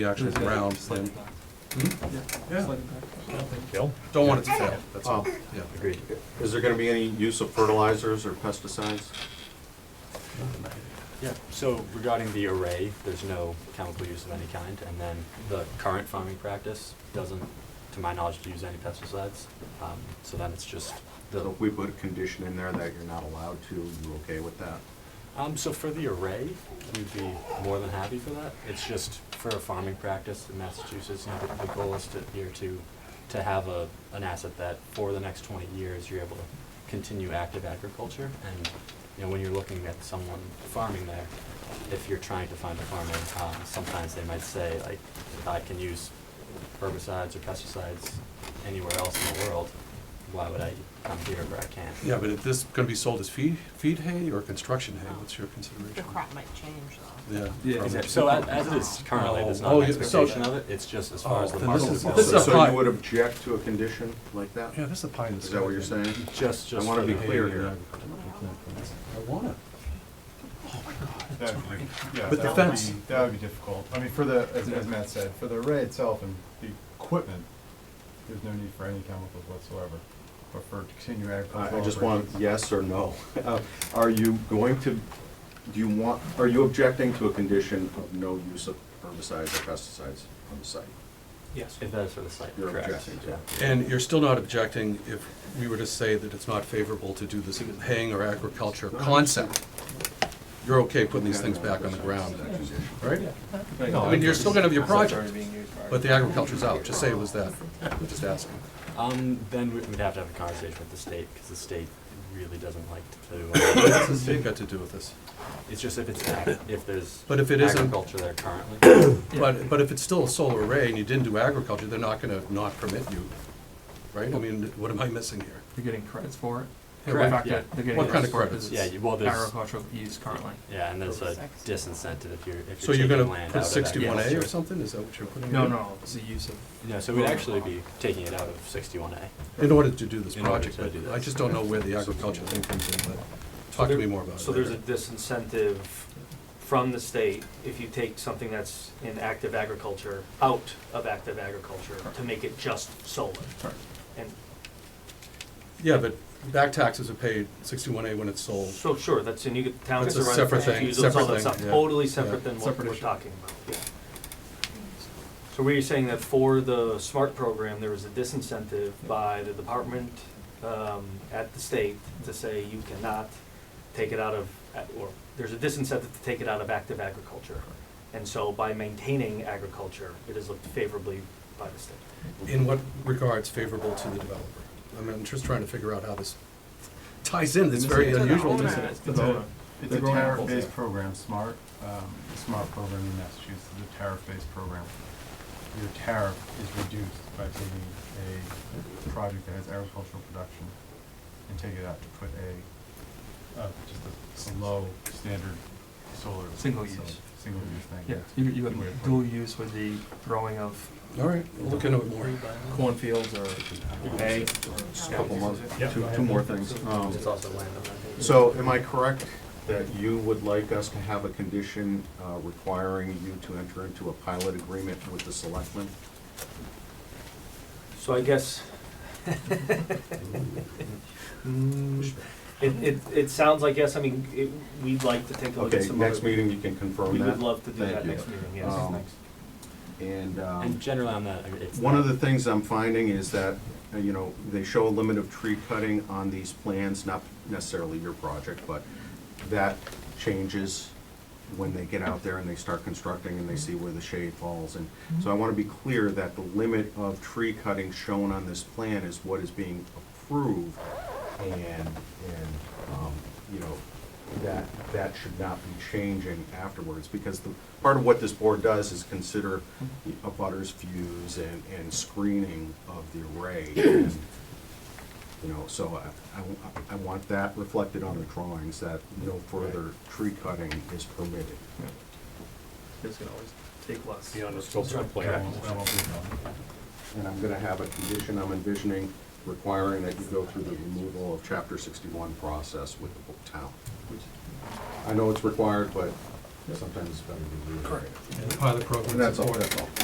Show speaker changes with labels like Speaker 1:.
Speaker 1: the actual ground, and
Speaker 2: Hmm?
Speaker 1: yeah,
Speaker 3: Bill?
Speaker 1: don't want it to fail, that's all,
Speaker 4: Oh.
Speaker 1: yeah.
Speaker 3: Agreed.
Speaker 4: Is there gonna be any use of fertilizers or pesticides?
Speaker 3: Yeah, so regarding the array, there's no chemical use of any kind, and then the current farming practice doesn't, to my knowledge, use any pesticides. Um, So then it's just
Speaker 4: So
Speaker 3: the,
Speaker 4: if we put a condition in there that you're not allowed to, you okay with that?
Speaker 3: um, so for the array, we'd be more than happy for that. It's just for a farming practice in Massachusetts, you know, the goal is to, here to, to have a, an asset that for the next twenty years, you're able to continue active agriculture. And, you know, when you're looking at someone farming there, if you're trying to find a farmer, um, sometimes they might say, like, I can use herbicides or pesticides anywhere else in the world, why would I come here where I can't?
Speaker 1: Yeah, but is this gonna be sold as feed, feed hay or construction hay, what's your
Speaker 5: The
Speaker 1: consideration?
Speaker 5: crop might change though.
Speaker 1: Yeah.
Speaker 2: Yeah,
Speaker 3: Exactly. So a- as it is currently, there's not
Speaker 1: Oh,
Speaker 3: an
Speaker 1: yeah, so-
Speaker 3: expectation of it, it's just as far as
Speaker 1: Oh,
Speaker 3: the
Speaker 1: then this
Speaker 3: market
Speaker 1: is-
Speaker 3: is.
Speaker 1: this is
Speaker 3: concerned.
Speaker 1: a
Speaker 4: So
Speaker 1: pie-
Speaker 4: you would object to a condition like that?
Speaker 1: Yeah, this is a pie in the sky.
Speaker 4: Is that what you're saying?
Speaker 3: Just,
Speaker 4: I
Speaker 3: just.
Speaker 4: wanna
Speaker 3: for
Speaker 4: be
Speaker 3: the-
Speaker 4: clear here.
Speaker 1: I want it. Oh
Speaker 6: That- Yeah,
Speaker 1: With the
Speaker 6: that would
Speaker 1: fence.
Speaker 6: be, that would be difficult. I mean, for the, as, as Matt said, for the array itself and the equipment, there's no need for any chemicals whatsoever. But for continuing
Speaker 4: I
Speaker 6: agricultural.
Speaker 4: I just want
Speaker 6: operations-
Speaker 4: yes or no. Uh, Are you going to, do you want, are you objecting to a condition of no use of herbicides or pesticides on the site?
Speaker 3: Yes. If that is for the site,
Speaker 4: You're
Speaker 3: correct.
Speaker 4: objecting to.
Speaker 1: And you're still not objecting if we were to say that it's not favorable to do this haying or agriculture concept? You're okay putting these things back on the ground,
Speaker 4: That condition.
Speaker 1: right? I mean, you're still gonna have your project, but the agriculture's out, just say it was that, We're just asking.
Speaker 3: Um, then we- we'd have to have a conversation with the state, because the state really doesn't like to, uh,
Speaker 1: What's the state got to do with this?
Speaker 3: it's just if it's, ag- if there's
Speaker 1: But if it isn't-
Speaker 3: agriculture there currently.
Speaker 1: But, but if it's still a solar array and you didn't do agriculture, they're not gonna not permit you, right? I mean, what am I missing here?
Speaker 2: They're getting credits for it.
Speaker 1: Yeah,
Speaker 2: In
Speaker 3: Correct,
Speaker 2: fact,
Speaker 3: yeah.
Speaker 2: they're- They're getting
Speaker 1: What kind of
Speaker 2: credits
Speaker 1: credits?
Speaker 2: for it because
Speaker 3: Yeah,
Speaker 2: it's
Speaker 3: you- well, there's- Mm-hmm.
Speaker 2: agricultural use currently.
Speaker 3: Yeah, and there's a
Speaker 5: Six.
Speaker 3: disincentive if you're, if
Speaker 1: So you're
Speaker 3: you're taking
Speaker 1: gonna
Speaker 3: land out
Speaker 1: put
Speaker 3: of that.
Speaker 1: sixty-one A
Speaker 2: Yeah.
Speaker 1: or something, is that what you're putting?
Speaker 2: No,
Speaker 1: in?
Speaker 2: no, it's the use of.
Speaker 3: No, so we'd actually be taking it out of sixty-one A.
Speaker 1: In order to do this
Speaker 3: In order
Speaker 1: project,
Speaker 3: to
Speaker 1: but
Speaker 3: do
Speaker 1: I
Speaker 3: this.
Speaker 1: just don't know where the agriculture thing comes in, but talk to me more about it
Speaker 7: So there's a
Speaker 1: later.
Speaker 7: disincentive from the state if you take something that's in active agriculture out of active agriculture to make it just solar.
Speaker 2: Correct.
Speaker 7: And,
Speaker 1: Yeah, but back taxes are paid sixty-one A when it's sold.
Speaker 7: so sure, that's, and you get towns
Speaker 1: That's a
Speaker 7: to run.
Speaker 1: separate thing,
Speaker 7: confused with all
Speaker 1: separate
Speaker 7: that stuff.
Speaker 1: thing, yeah.
Speaker 7: Totally
Speaker 1: Yeah,
Speaker 7: separate than what
Speaker 2: separate
Speaker 7: we're
Speaker 2: issue.
Speaker 7: talking about, yeah. So were you saying that for the SMART program, there was a disincentive by the department um, at the state to say you cannot take it out of, or there's a disincentive to take it out of active agriculture. And so by maintaining agriculture, it is looked favorably by the state.
Speaker 1: In what regards favorable to the developer? I mean, I'm just trying to figure out how this ties in, it's very
Speaker 2: It's an
Speaker 1: unusual.
Speaker 5: owner.
Speaker 1: isn't it?
Speaker 6: It's a, it's
Speaker 2: They're
Speaker 6: a
Speaker 2: growing apples
Speaker 6: tariff-based
Speaker 2: there.
Speaker 6: program, SMART, um, the SMART program in Massachusetts is a tariff-based program. Your tariff is reduced by taking a project that has agricultural production and take it out to put a, uh, just a, a low standard solar.
Speaker 2: Single
Speaker 6: so-
Speaker 2: use.
Speaker 6: Single use thing,
Speaker 2: Yeah,
Speaker 6: yeah.
Speaker 2: you, you
Speaker 6: Good way to
Speaker 2: have
Speaker 6: put
Speaker 2: dual
Speaker 6: it.
Speaker 2: use with the growing of
Speaker 1: All right, we'll look into it more.
Speaker 2: cornfields or hay.
Speaker 4: Just a Couple months, two, two more things. Um,
Speaker 3: It's also land on that.
Speaker 4: So am I correct that you would like us to have a condition uh, requiring you to enter into a pilot agreement with the selectmen?
Speaker 7: So I guess. Mm, It, it, it sounds like yes, I mean, it, we'd like to take a look at
Speaker 4: Okay,
Speaker 7: some other.
Speaker 4: next meeting you can confirm
Speaker 7: We
Speaker 4: that.
Speaker 7: would love to do
Speaker 4: Thank
Speaker 7: that
Speaker 4: you.
Speaker 7: next meeting, yes.
Speaker 4: Um,
Speaker 7: Thanks.
Speaker 4: And um,
Speaker 3: And generally on that, I mean, it's.
Speaker 4: one
Speaker 3: not-
Speaker 4: of the things I'm finding is that, uh, you know, they show a limit of tree cutting on these plans, not necessarily your project, but that changes when they get out there and they start constructing and they see where the shade falls. And so I want to be clear that the limit of tree cutting shown on this plan is what is being approved. And, and, um, you know, that, that should not be changing afterwards. Because the, part of what this board does is consider the abutters views and, and screening of the array. And, You know, so I- I, w- I want that reflected on the drawings, that no further tree cutting is permitted.
Speaker 2: Yeah. It's gonna always take less.
Speaker 3: Beyond the scope of the
Speaker 6: That
Speaker 3: plan.
Speaker 6: won't- that won't be a problem.
Speaker 4: And I'm gonna have a condition I'm envisioning requiring that you go through the removal of chapter sixty-one process with the town. I know it's required, but Sometimes it's better to do it.
Speaker 1: And the pilot program.
Speaker 4: And that's all,
Speaker 1: supported.
Speaker 4: that's all.